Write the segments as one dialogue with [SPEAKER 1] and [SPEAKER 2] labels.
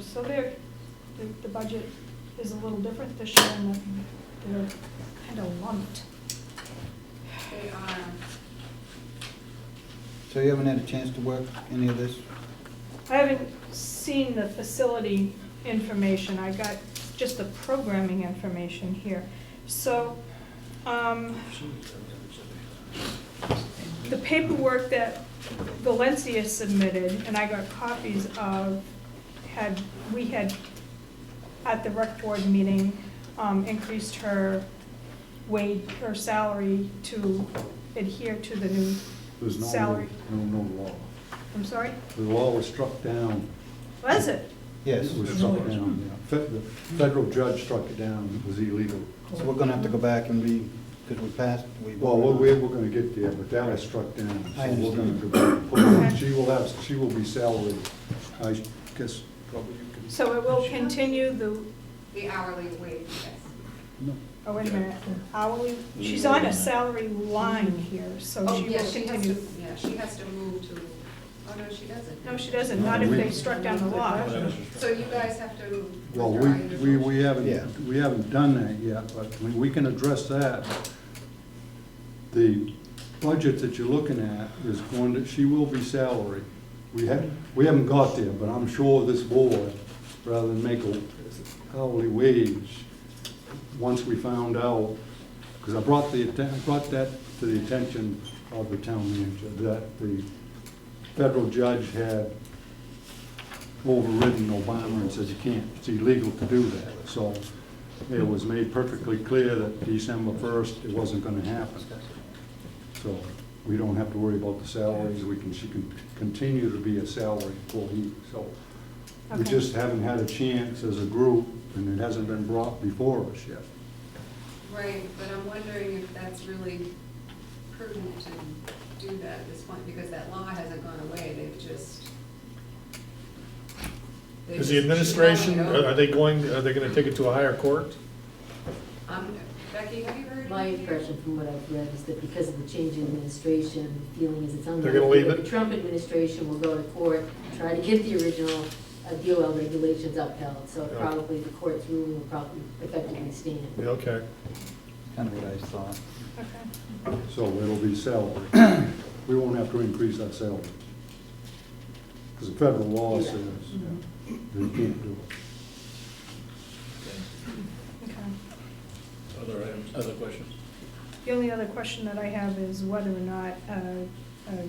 [SPEAKER 1] So there, the, the budget is a little different this year in that they're kind of lumped.
[SPEAKER 2] They are,
[SPEAKER 3] So you haven't had a chance to work any of this?
[SPEAKER 1] I haven't seen the facility information, I got just the programming information here. So, um, the paperwork that Valencia submitted, and I got copies of, had, we had, at the rec board meeting, um, increased her wage, her salary to adhere to the new
[SPEAKER 4] There's no,
[SPEAKER 1] salary.
[SPEAKER 4] no, no law.
[SPEAKER 1] I'm sorry,
[SPEAKER 4] The law was struck down.
[SPEAKER 1] was it?
[SPEAKER 3] Yes.
[SPEAKER 4] It was
[SPEAKER 3] So
[SPEAKER 4] struck down, yeah. Fe- The federal judge struck it down, it was illegal.
[SPEAKER 3] we're gonna have to go back and re, because we passed, we.
[SPEAKER 4] Well, we're, we're gonna get there, but that was struck down.
[SPEAKER 3] I
[SPEAKER 4] so we're gonna
[SPEAKER 3] understand.
[SPEAKER 4] go back and put it
[SPEAKER 1] Okay.
[SPEAKER 4] in. She will have, she will be salaried, I guess, probably you can.
[SPEAKER 1] So it will continue the,
[SPEAKER 2] the hourly wage, yes.
[SPEAKER 4] No.
[SPEAKER 1] oh, wait a minute, hourly, she's on a salary line here, so
[SPEAKER 2] Oh,
[SPEAKER 1] she
[SPEAKER 2] yeah,
[SPEAKER 1] will
[SPEAKER 2] she has to,
[SPEAKER 1] continue.
[SPEAKER 2] yeah, she has to move to, oh, no, she doesn't.
[SPEAKER 1] No, she doesn't, not if they struck down the law.
[SPEAKER 2] So you guys have to.
[SPEAKER 4] Well, we,
[SPEAKER 2] withdraw your
[SPEAKER 4] we,
[SPEAKER 2] motion.
[SPEAKER 4] we
[SPEAKER 3] Yeah.
[SPEAKER 4] haven't, we haven't done that yet, but we, we can address that. The budget that you're looking at is going to, she will be salary. We haven't, we haven't got there, but I'm sure this board, rather than make a hourly wage, once we found out, because I brought the, atten- I brought that to the attention of the town manager, that the federal judge had overridden Obama and says you can't, it's illegal to do that. So it was made perfectly clear that December first, it wasn't gonna happen. So we don't have to worry about the salaries, we can, she can continue to be a salary employee, so. We
[SPEAKER 1] Okay.
[SPEAKER 4] just haven't had a chance as a group, and it hasn't been brought before us yet.
[SPEAKER 2] Right, but I'm wondering if that's really prudent to do that at this point, because that law hasn't gone away, they've just. they
[SPEAKER 5] Is the
[SPEAKER 2] just- she's
[SPEAKER 5] administration, uh,
[SPEAKER 2] mulling it
[SPEAKER 5] are are
[SPEAKER 2] over.
[SPEAKER 5] they going, are they gonna take it to a higher court?
[SPEAKER 2] Um, Becky, have you heard?
[SPEAKER 6] My
[SPEAKER 2] anything?
[SPEAKER 6] impression from what I've read is that because of the change in administration, the feeling is it's unlikely.
[SPEAKER 5] gonna leave
[SPEAKER 6] that
[SPEAKER 5] it?
[SPEAKER 6] The Trump administration will go to court, try to get the original uh, DOL regulations upheld, so
[SPEAKER 5] Yeah.
[SPEAKER 6] probably the court's ruling will probably effectively stand.
[SPEAKER 5] Yeah, Okay.
[SPEAKER 3] Kind of what I thought.
[SPEAKER 1] Okay.
[SPEAKER 4] So it'll be salary. We won't have to increase our salaries. Because the federal law
[SPEAKER 6] Yeah.
[SPEAKER 4] says yeah, that you can't do it.
[SPEAKER 1] Okay.
[SPEAKER 7] Other items, other questions?
[SPEAKER 1] The only other question that I have is whether or not uh, a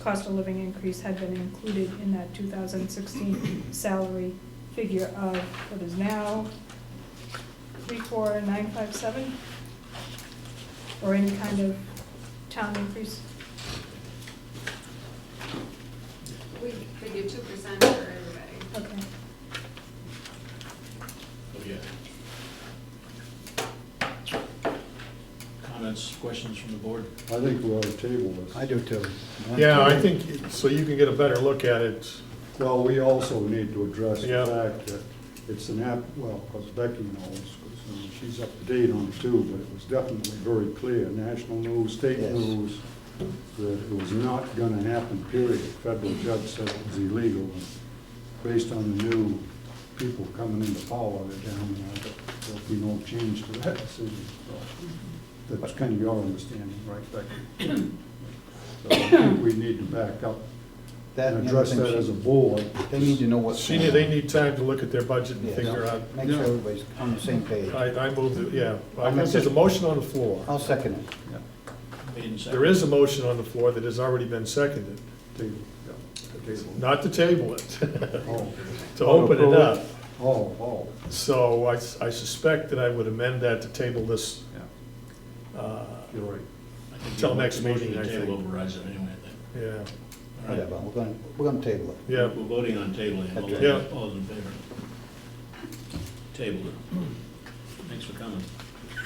[SPEAKER 1] cost of living increase had been included in that 2016 salary figure of what is now 34957? Or any kind of town increase?
[SPEAKER 2] We figured two percent for everybody.
[SPEAKER 1] Okay.
[SPEAKER 7] Oh, yeah. Comments, questions from the board?
[SPEAKER 4] I think we ought to table this.
[SPEAKER 3] I do too.
[SPEAKER 5] Yeah, I think, so you can get a better look at it.
[SPEAKER 4] Well, we also need to address the
[SPEAKER 5] Yeah.
[SPEAKER 4] fact that it's an app, well, because Becky knows, 'cause, I mean, she's up to date on it too, but it was definitely very clear, national news, state
[SPEAKER 3] Yes.
[SPEAKER 4] news, that it was not gonna happen, period. Federal judge said it was illegal, and based on the new people coming into power, they're down there, that there'll be no change to that decision. So That's kind of your understanding, right, Becky? So I think we need to back up
[SPEAKER 3] That
[SPEAKER 4] and
[SPEAKER 3] and the
[SPEAKER 4] address
[SPEAKER 3] other
[SPEAKER 4] that
[SPEAKER 3] thing
[SPEAKER 4] as a
[SPEAKER 3] she-
[SPEAKER 4] board.
[SPEAKER 3] They need to know what's.
[SPEAKER 5] She, need- they need time to look at their budget and
[SPEAKER 3] Yeah.
[SPEAKER 5] figure out.
[SPEAKER 3] Make sure everybody's on the same page.
[SPEAKER 5] I, I move, to- yeah,
[SPEAKER 3] I'll make
[SPEAKER 5] there's a
[SPEAKER 3] that-
[SPEAKER 5] motion on the floor.
[SPEAKER 3] I'll second it.
[SPEAKER 4] Yeah,
[SPEAKER 7] Made and seconded.
[SPEAKER 5] There is a motion on the floor that has already been seconded,
[SPEAKER 4] Table, yeah, the table.
[SPEAKER 5] not to table it,
[SPEAKER 4] Oh.
[SPEAKER 5] to open it up.
[SPEAKER 4] Oh, oh,
[SPEAKER 5] So I, s- I suspect that I would amend that to table this,
[SPEAKER 4] yeah,
[SPEAKER 5] uh,
[SPEAKER 4] you're right.
[SPEAKER 7] I think
[SPEAKER 5] till
[SPEAKER 7] the
[SPEAKER 5] next
[SPEAKER 7] motion
[SPEAKER 5] meeting,
[SPEAKER 7] to
[SPEAKER 5] I think.
[SPEAKER 7] Table overrides it anyway, I
[SPEAKER 5] yeah,
[SPEAKER 7] think.
[SPEAKER 3] Whatever, we're gonna, we're gonna table it.
[SPEAKER 5] yeah.
[SPEAKER 7] We're voting on tabling, all
[SPEAKER 3] Okay.
[SPEAKER 5] Yeah.
[SPEAKER 7] those- all those in favor. Table it. Thanks for coming.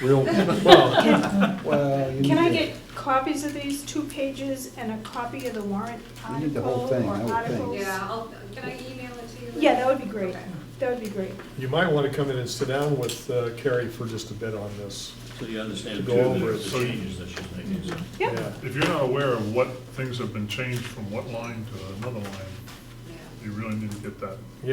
[SPEAKER 4] We don't,
[SPEAKER 5] Well,
[SPEAKER 3] Well, you
[SPEAKER 1] Can I
[SPEAKER 3] need to-
[SPEAKER 1] get copies of these, two pages, and a copy of the warrant
[SPEAKER 3] You need
[SPEAKER 1] article
[SPEAKER 3] the whole
[SPEAKER 1] or
[SPEAKER 3] thing, I would think.
[SPEAKER 1] articles?
[SPEAKER 2] Yeah, I'll, can I email it to you?
[SPEAKER 1] Yeah, that would be great.
[SPEAKER 2] Okay.
[SPEAKER 1] That would be great.
[SPEAKER 5] you might want to come in and sit down with uh, Carrie for just a bit on this.
[SPEAKER 7] So you
[SPEAKER 5] To
[SPEAKER 7] understand too,
[SPEAKER 5] go over
[SPEAKER 7] the
[SPEAKER 5] it.
[SPEAKER 7] the changes that she's making, so.
[SPEAKER 1] Yep.
[SPEAKER 8] If you're not aware of what things have been changed from what line to another line,
[SPEAKER 2] Yeah.
[SPEAKER 8] you really need to get that